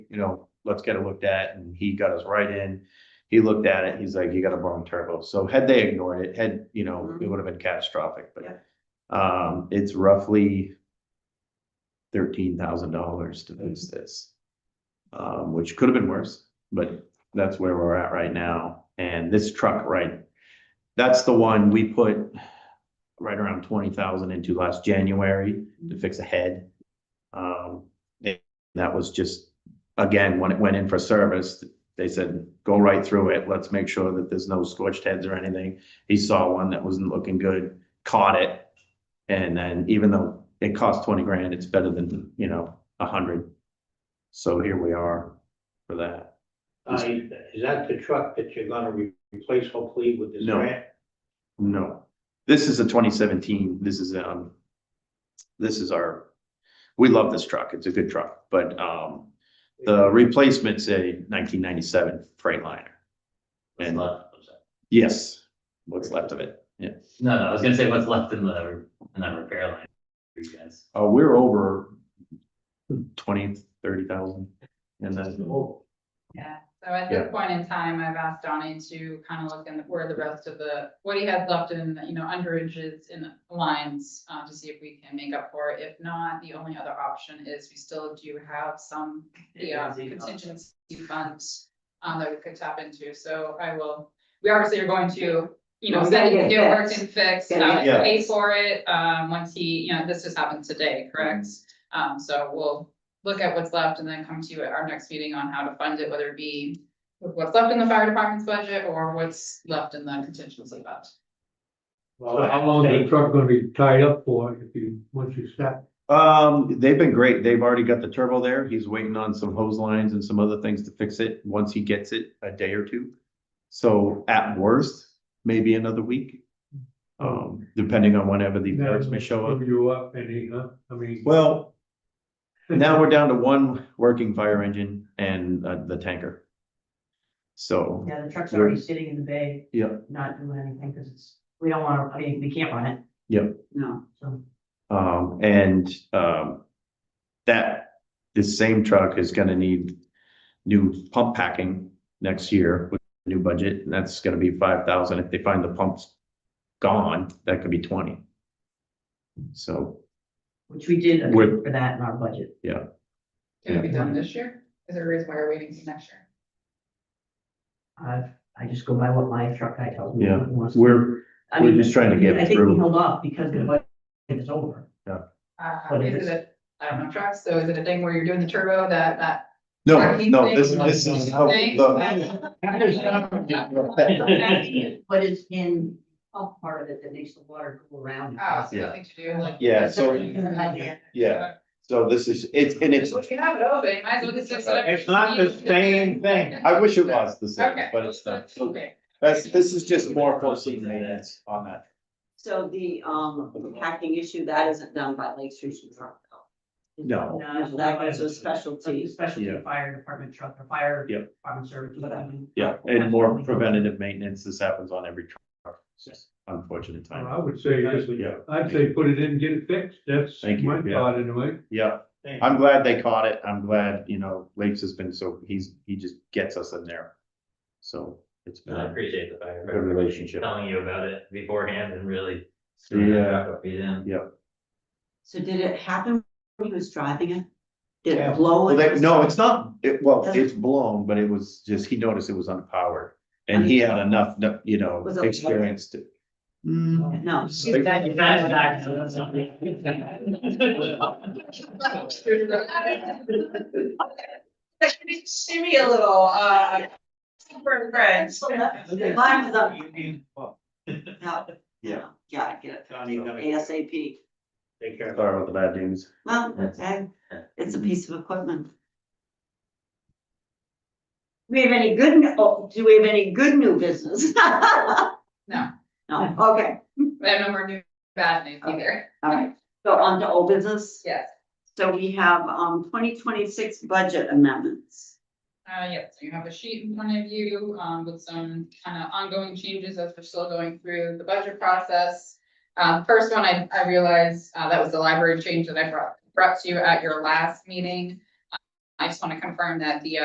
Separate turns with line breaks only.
you know, let's get it looked at, and he got us right in. He looked at it, he's like, you got a blown turbo, so had they ignored it, had, you know, it would have been catastrophic, but.
Yeah.
Um, it's roughly thirteen thousand dollars to fix this. Um, which could have been worse, but that's where we're at right now, and this truck, right? That's the one we put right around twenty thousand into last January to fix a head. Um, it- that was just, again, when it went in for service, they said, go right through it, let's make sure that there's no scorched heads or anything. He saw one that wasn't looking good, caught it, and then even though it cost twenty grand, it's better than, you know, a hundred. So here we are for that.
Uh, is that the truck that you're gonna re- replace hopefully with this
No.
grant?
No, this is a twenty seventeen, this is, um, this is our, we love this truck, it's a good truck, but, um, the replacement's a nineteen ninety-seven Freightliner.
What's
And- uh,
left, what's that?
Yes, what's left of it, yeah.
No, no, I was gonna say what's left in the, re- in that repair line for you guys.
Uh, we're over twenty, thirty thousand. And then,
Oh,
Yeah, so at
Yeah.
this point in time, I've asked Donnie to kind of look in where the rest of the, what he has left in, you know, underages in lines, uh, to see if we can make up for it. If not, the only other option is we still do have some, yeah, contingency funds, um, that we could tap into, so I will, we obviously are going to, you know,
Well, we
send
gotta
it,
get
get
it
worked
fixed.
and fixed,
Gotta
uh,
get it
pay for it, um, once he, you know, this just happened today, correct? Um, so we'll look at what's left and then come to you at our next meeting on how to fund it, whether it be with what's left in the fire department's budget or what's left in the contingency budget.
Well, how long is the truck gonna be tied up for if you, once you stop?
um, they've been great, they've already got the turbo there, he's waiting on some hose lines and some other things to fix it, once he gets it, a day or two. So at worst, maybe another week, um, depending on whenever the parts may show up.
You up any, huh? I mean.
Well, now we're down to one working fire engine and uh, the tanker. So,
Yeah, the truck's already sitting in the bay,
yeah,
not doing anything, because it's, we don't want to, I mean, we can't run it.
Yep.
No, so,
um, and, um, that, this same truck is gonna need new pump packing next year with the new budget, and that's gonna be five thousand. If they find the pumps gone, that could be twenty. So,
which we did account
With-
for that in our budget.
Can it be
Yeah.
done this year? Is there a reason why we're waiting till next year?
I, Uh, I just go by what my truck guy tells me.
Yeah,
he wants.
we're,
I
we're
mean,
just trying to get
I think we
through.
held off because the budget is over.
Uh,
What
is
is-
it a, I don't know, trucks, so is it a thing where you're doing the turbo that, that?
No,
tracking
no,
thing?
this, this is how
Thing?
the.
But it's in, a part of it that makes the water go around.
Oh, so nothing to do like.
Yeah, so- Yeah, so this is, it's, and it's,
So if you have it open, might as well just. fix whatever
It's not the
you need.
same thing.
I wish it was the same,
Okay.
but it's not. So
Okay.
That's, this is just more closely maintenance on that.
So the, um, hacking issue, that isn't done by Lake Street Truck.
No.
No, that was a
Like the
specialty.
specialty
Yeah.
fire department truck, or fire.
Yep.
Department service.
Yeah, and more preventative maintenance, this happens on every truck, it's just unfortunate time.
I would say, just-
Yeah,
I'd say put it in, get it fixed, that's
Thank you,
my
yeah.
thought anyway.
yeah, I'm glad they caught it, I'm glad, you know, Lakes has been so, he's, he just gets us in there. So it's
And I
been,
appreciate the fire.
Good relationship.
Telling you about it beforehand and really.
Yeah.
Be in.
So did it happen when he was driving it? Did
Yeah.
it
well,
blow? when he
they,
was
no,
driving?
it's not, it, well, it's blown, but it was just, he noticed it was unpowered. And he had enough, you know,
Was it-
experience to. Hmm,
No.
Shimmy a little, uh. Super French.
Mine was up. No.
Yeah.
Yeah, I get
Donnie, you
it.
gotta-
ASAP.
Take care.
sorry about the bad news.
Well, okay, it's a piece of equipment.
We have any good,
Oh, do we have any good new business?
No.
No, okay,
I have no more new bad news either.
all right. So on to old business.
Yes,
So we have, um, twenty twenty-six budget amendments.
uh, yes, you have a sheet in front of you, um, with some kind of ongoing changes as we're still going through the budget process. Um, first one, I, I realized, uh, that was the library change that I brought, brought to you at your last meeting. I just want to confirm that the, uh,